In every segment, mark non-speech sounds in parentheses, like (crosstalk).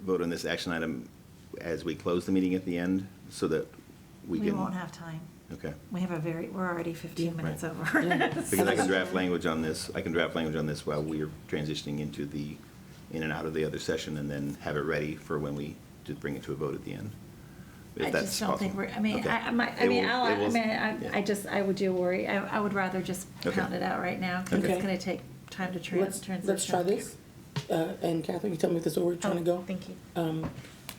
vote on this action item as we close the meeting at the end, so that we We can? won't have time. Okay. We have a very, we're already 15 Yeah. minutes Right. over. Yeah. (laughs) Because I can draft language on this, I can draft language on this while we are transitioning into the, in and out of the other session, and then have it ready for when we just bring it to a vote at the end. If I that's just don't think possible. we're, I mean, Okay. I, I might- I It mean, will- I'll, it will- I mean, I, yeah. I just, I would do worry. I, I would rather just Okay. pound it out right now, because Okay. it's gonna take time to trans- Let's- transition. Let's try this. Uh, And Catherine, you tell me if this is where we're trying to Oh, go. Thank you. um,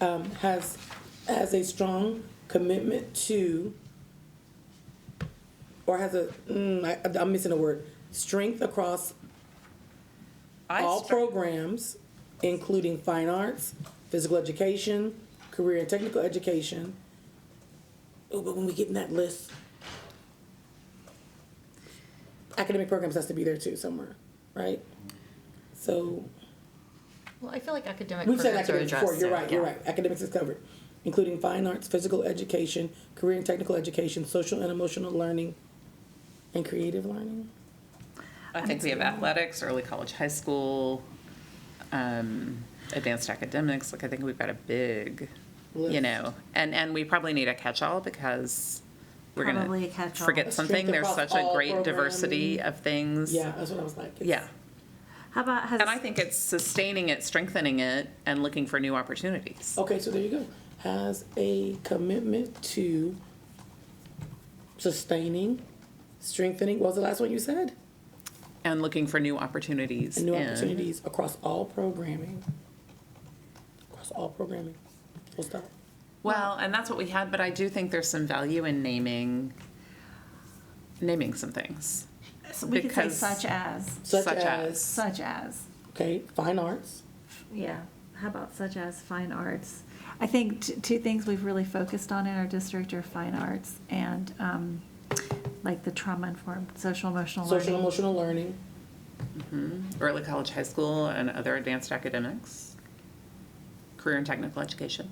um, has, has a strong commitment to, or has a, mm, I, I'm missing a word, strength across I all start- programs, including fine arts, physical education, career and technical education. Oh, but when we get in that list, academic programs has to be there too somewhere, right? So. Well, I feel like academic We've said programs are academics addressed. before, you're now, right, you're yeah. right, academics is covered, including fine arts, physical education, career and technical education, social and emotional learning, and creative learning. I think we have athletics, early college, high school, um, advanced academics. Like I think we've got a big, you List. know, and and we probably need a catch-all because we're Probably a gonna catch-all. forget something. Strength There's across such a all great diversity programming. of things. Yeah, that's what I was like. it's- Yeah. How about, has, And I think it's sustaining it, strengthening it, and looking for new opportunities. Okay, so there you go, has a commitment to sustaining, strengthening, what was the last one you said? And looking for new opportunities. And new in- opportunities across all programming, across all programming, full stop. Well, and that's what we had, but I do think there's some value in naming, naming some things. so we could say because- such as, Such Such as- as, such as. Okay, fine arts, Yeah, how about such as fine arts? I think t- two things we've really focused on in our district are fine arts and um, like the trauma-informed social emotional social and learning. emotional learning, early college, high school, and other advanced academics, career and technical education.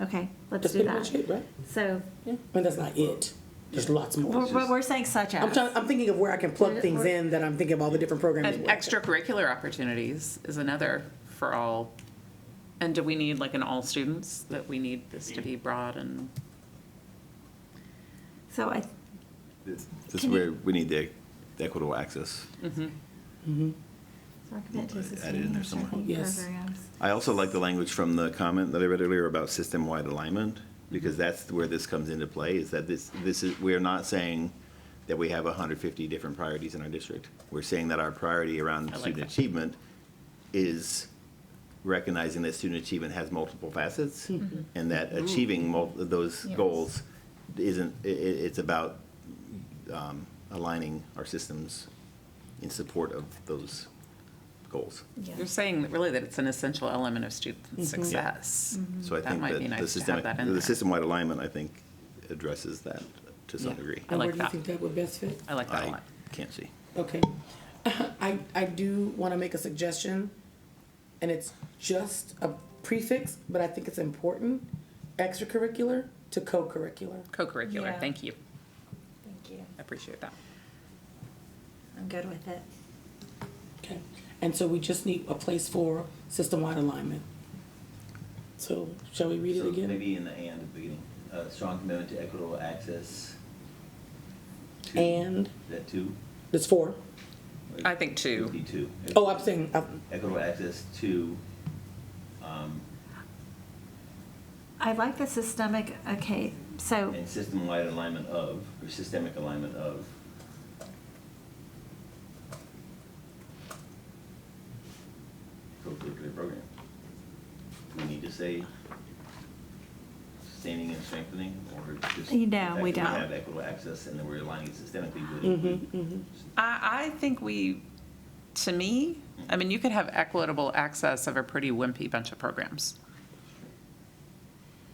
Okay, let's that's do pretty much that. it, right? So, Yeah, I mean, that's not it. There's lots more. but but we're saying such Oh, I'm trying, as. I'm thinking of where I can plug things in that I'm thinking of all the different programs. And where I can- extracurricular opportunities is another for all. And do we need like an all students, that we need this to be broad and, So I, This this is Can you- where we need the equitable access. so I commit Add it to in sustaining there and somewhere. strengthening Yes. programs. I also like the language from the comment that I read earlier about system-wide alignment, because that's where this comes into play, is that this, this is, we're not saying that we have hundred fifty different priorities in our district. We're saying that our priority around I like student that. achievement is recognizing that student achievement has multiple facets, and that achieving mul- those Yes. goals isn't, i- i- it's about, um, aligning our systems in support of those goals. you're saying that really that it's an essential element of student success. So I That think might be that nice to the have systemic, that in the there. system-wide alignment, I think, addresses that to some Yeah. degree. I like Where do you that. think that would best fit? I like that a I lot. can't see. Okay. (laughs) I, I do want to make a suggestion, and it's just a prefix, but I think it's important. Extracurricular to co-curricular. Co-curricular, Yeah. thank you. Thank you. I appreciate that. I'm good with it. Okay. And so we just need a place for system-wide alignment. So shall we read it again? in the and at the beginning, uh, strong commitment to equitable access. And That two? there's four. I think two. Be two. Oh, I'm saying, I'm- Equitable access to. I like the systemic, okay, so, And system-wide alignment of, or systemic alignment of. Co-curricular program. Do we need to say sustaining and strengthening, or just? You know, we the fact that don't. have Mm-hmm, equitable access, and then we're aligning systemically would include. I, I think we, to me, I mean, you could have equitable access of a pretty wimpy bunch of programs.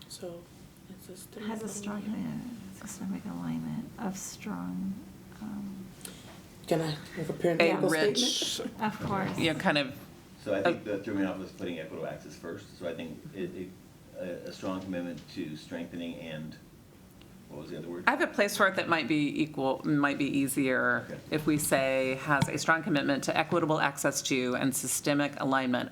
so. it's system- has a strong uh, systemic alignment of strong, um, Can I have a A parenthetical statement? rich, of course. you know, kind of, So I think Uh, that threw me off was putting equitable access first, so I think it, it, a, a strong commitment to strengthening and, what was the other word? I have a place for it that might be equal, might be easier Okay. if we say has a strong commitment to equitable access to and systemic alignment